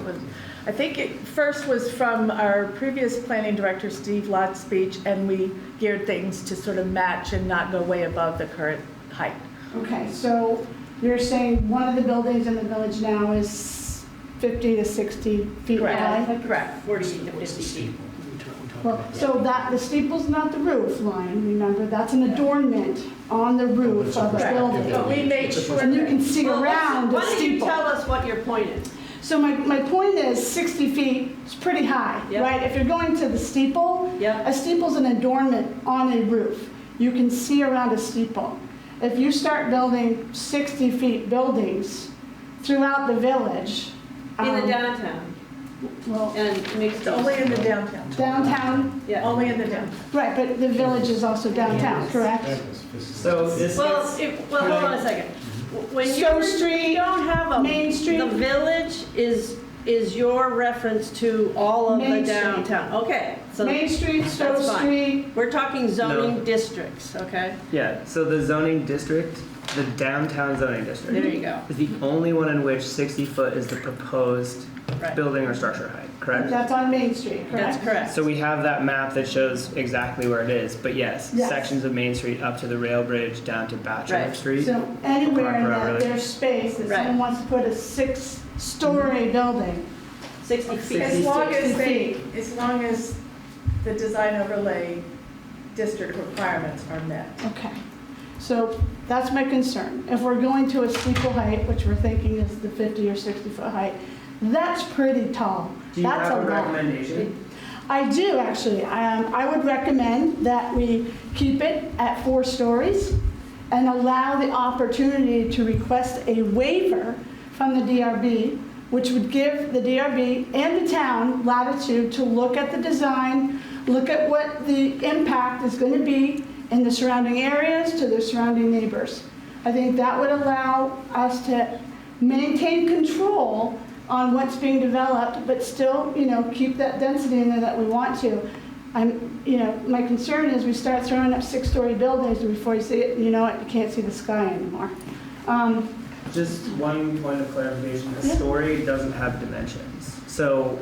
was, I think it first was from our previous planning director, Steve Lott's speech, and we geared things to sort of match and not go way above the current height. Okay, so you're saying one of the buildings in the village now is 50 to 60 feet high? Correct. 40 to 50 feet. Well, so that, the steeple's not the roof line, remember, that's an adornment on the roof of the Correct. But building. we made sure. And you can that- see Well, what's- around the Why don't you steeple. tell us what your point is? So my, my point is 60 feet is pretty high, Yep. right? If you're going to the steeple, Yep. a steeple's an adornment on a roof. You can see around a steeple. If you start building 60 feet buildings throughout the village. In the um, downtown Well, and mixed It's only use? in the downtown, downtown, Yeah. only in the downtown. right, but the village is also downtown, correct? So So this Well, is, if, well, hold on a second. When you Stone Street, don't have a. Main Street. The village is, is your reference to all of the Main Street. downtown. Okay, so Main Street, Stowe That's fine. Street, we're talking zoning No. districts, okay? yeah, so the zoning district, the downtown zoning There district, you go. is the only one in which 60 foot is the proposed Right. building or structure height, correct? that's on Main Street, That's correct? correct. So we have that map that shows exactly where it is, but yes, Yes. sections of Main Street up to the rail bridge, down to Bachelor Right. Street. So anywhere in that Right. there's space, if Right. someone wants to put a six-story building, 60 As feet. long as 60 they, feet. as long as the design overlay district requirements are met. Okay, so that's my concern. If we're going to a steeple height, which we're thinking is the 50 or 60-foot height, that's pretty tall. Do you That's a have a lot. recommendation? I do, actually. Um, I would recommend that we keep it at four stories and allow the opportunity to request a waiver from the DRB, which would give the DRB and the town latitude to look at the design, look at what the impact is going to be in the surrounding areas to the surrounding neighbors. I think that would allow us to maintain control on what's being developed, but still, you know, keep that density in there that we want to. I'm, you know, my concern is we start throwing up six-story buildings and before you see it, you know, what, you can't see the sky anymore. Um, Just one point of clarification, the Yeah. story doesn't have dimensions. So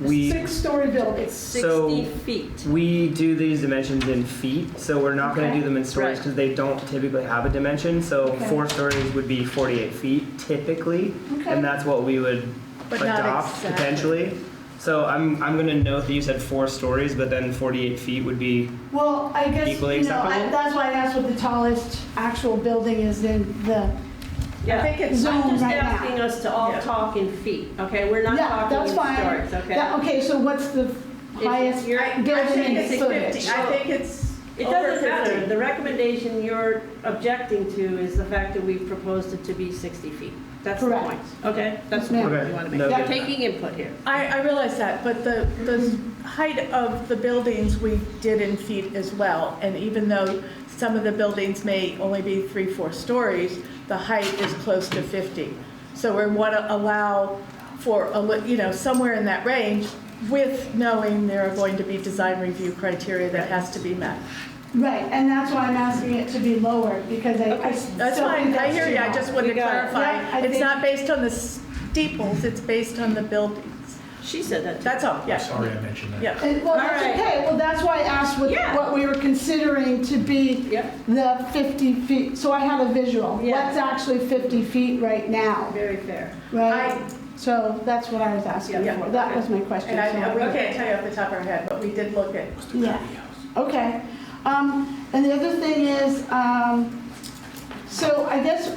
we. Six-story buildings. 60 So- feet. We do these dimensions in feet, so we're not gonna Okay. do them in stories Right. because they don't typically have a dimension, so Okay. four stories would be forty-eight feet typically, Okay. and that's what we would But not adopt exactly. potentially. So I'm, I'm gonna note that you said four stories, but then forty-eight feet would be, Well, I guess, Equally you know, I- acceptable? that's why I asked what the tallest actual building is in the, Yeah. I think it's Zone I'm just right now. asking us to all Yeah. talk in feet, okay? We're not yeah, talking in that's fine. stories, okay? That- Okay, so what's the If highest you're- I- I building think in it's footage? 50. I think it's It over doesn't matter. 50. The recommendation you're objecting to is the fact that we proposed it to be 60 feet. That's the Correct. point, okay? That's Yes, the point ma'am. you want to make. Okay, no, You're good. taking input here. I, I realize that, but the, the height of the buildings we did in feet as well. And even though some of the buildings may only be three, four stories, the height is close to 50. So we want to allow for, a li- you know, somewhere in that range with knowing there are going to be design review criteria that has to be met. Right, and that's why I'm asking it to be lower, because I, I still think That's fine, I hear you, I too just wanted to We got it. Yeah, clarify. I It's think- not based on the steeples, it's based on the buildings. She said that. That's all, yeah. Sorry, I mentioned that. Yeah. low. And, well, that's All right. okay, well, that's why I asked what, Yeah. what we were considering to be Yep, the 50 feet, so I had a visual. Yeah. What's actually 50 feet right now, very fair. right? So that's what I was asking Yeah, for, that okay. was my question. And I, so- we can't tell you off the top of our head, but we did look at, Yeah, okay. Um, And the other thing is, um, so I guess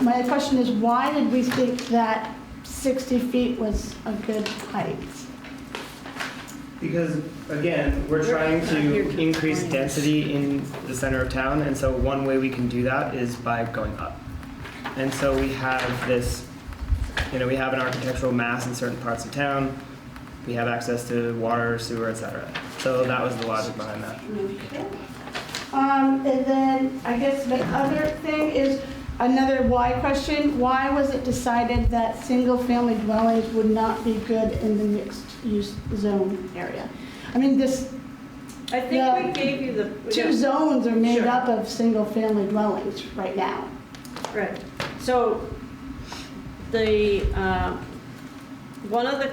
my question is, why did we think that 60 feet was a good height? because again, we're We're trying not here to to increase explain. density in the center of town, and so one way we can do that is by going up. And so we have this, you know, we have an architectural mass in certain parts of town, we have access to water, sewer, et cetera. So that was the logic behind that. Um, And then, I guess the other thing is another why question. Why was it decided that single-family dwellings would not be good in the mixed-use zone area? I mean, this, I think we gave you the. two zones are made Sure. up of single-family dwellings right now. Right. So the, um, uh, one of the